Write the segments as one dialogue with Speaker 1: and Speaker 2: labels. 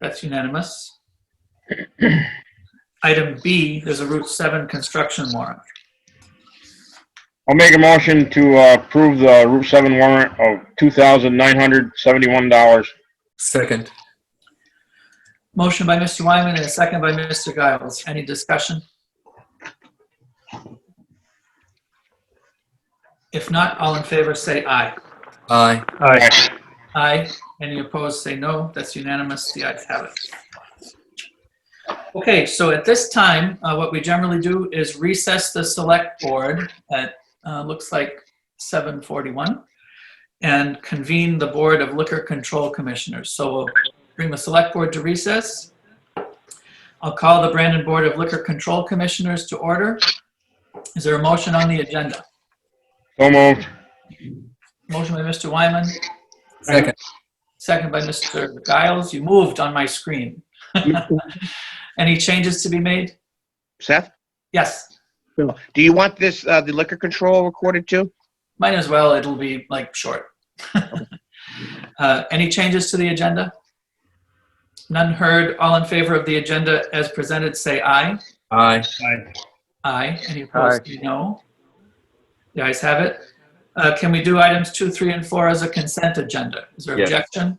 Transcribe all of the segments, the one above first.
Speaker 1: That's unanimous. Item B, there's a Route 7 construction warrant.
Speaker 2: I'll make a motion to uh, approve the Route 7 warrant of $2,971.
Speaker 3: Second.
Speaker 1: Motion by Mr. Wyman and a second by Mr. Giles. Any discussion? If not, all in favor say aye.
Speaker 3: Aye.
Speaker 1: Aye. Any opposed say no. That's unanimous. The ayes have it. Okay, so at this time, uh, what we generally do is recess the select board at, uh, looks like 7:41 and convene the Board of Liquor Control Commissioners. So we'll bring the select board to recess. I'll call the Brandon Board of Liquor Control Commissioners to order. Is there a motion on the agenda?
Speaker 2: So moved.
Speaker 1: Motion by Mr. Wyman,
Speaker 3: Second.
Speaker 1: Second by Mr. Giles. You moved on my screen. Any changes to be made?
Speaker 4: Seth,
Speaker 1: Yes,
Speaker 4: do you want this, uh, the liquor control recorded too?
Speaker 1: might as well. It'll be like short. Uh, Any changes to the agenda? None heard. All in favor of the agenda as presented, say aye.
Speaker 3: Aye.
Speaker 1: Aye. Any opposed, say no. The ayes have it. Uh, Can we do items two, three, and four as a consent agenda? Is there
Speaker 3: Yes.
Speaker 1: objection?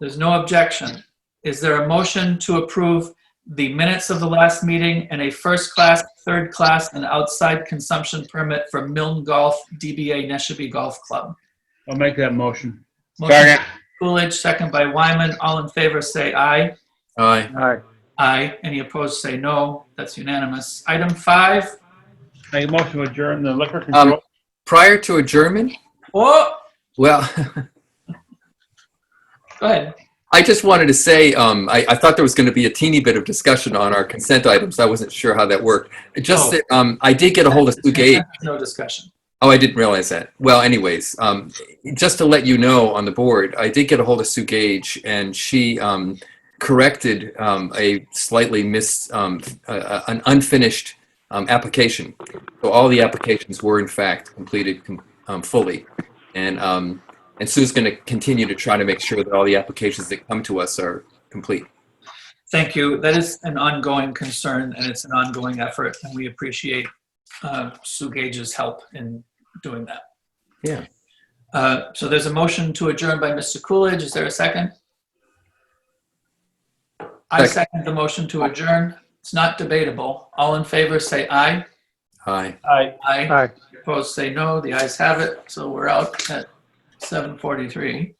Speaker 1: There's no objection. Is there a motion to approve the minutes of the last meeting and a first-class, third-class, and outside consumption permit for Milne Golf DBA Neshabee Golf Club?
Speaker 5: I'll make that motion.
Speaker 1: Motion by
Speaker 2: Second.
Speaker 1: Coolidge, second by Wyman. All in favor, say aye.
Speaker 3: Aye.
Speaker 1: Aye. Any opposed, say no. That's unanimous. Item five,
Speaker 5: Make a motion to adjourn the liquor
Speaker 3: Um,
Speaker 5: control.
Speaker 3: prior to adjournment,
Speaker 1: oh,
Speaker 3: well,
Speaker 1: go ahead.
Speaker 3: I just wanted to say, um, I, I thought there was going to be a teeny bit of discussion on our consent items. I wasn't sure how that worked. Just
Speaker 1: Oh.
Speaker 3: that, um, I did get a hold of Sue Gage.
Speaker 1: No discussion.
Speaker 3: Oh, I didn't realize that. Well, anyways, um, just to let you know on the board, I did get a hold of Sue Gage, and she um, corrected um, a slightly missed, um, uh, an unfinished um, application. So all the applications were in fact completed com- um, fully, and um, and Sue's going to continue to try to make sure that all the applications that come to us are complete.
Speaker 1: Thank you. That is an ongoing concern and it's an ongoing effort and we appreciate uh, Sue Gage's help in doing that.
Speaker 3: Yeah.
Speaker 1: Uh, So there's a motion to adjourn by Mr. Coolidge. Is there a second? I
Speaker 3: Second.
Speaker 1: second the motion to adjourn. It's not debatable. All in favor, say aye.
Speaker 3: Hi.
Speaker 5: Aye.
Speaker 1: Aye. Opposed, say no. The ayes have it. So we're out at 7:43.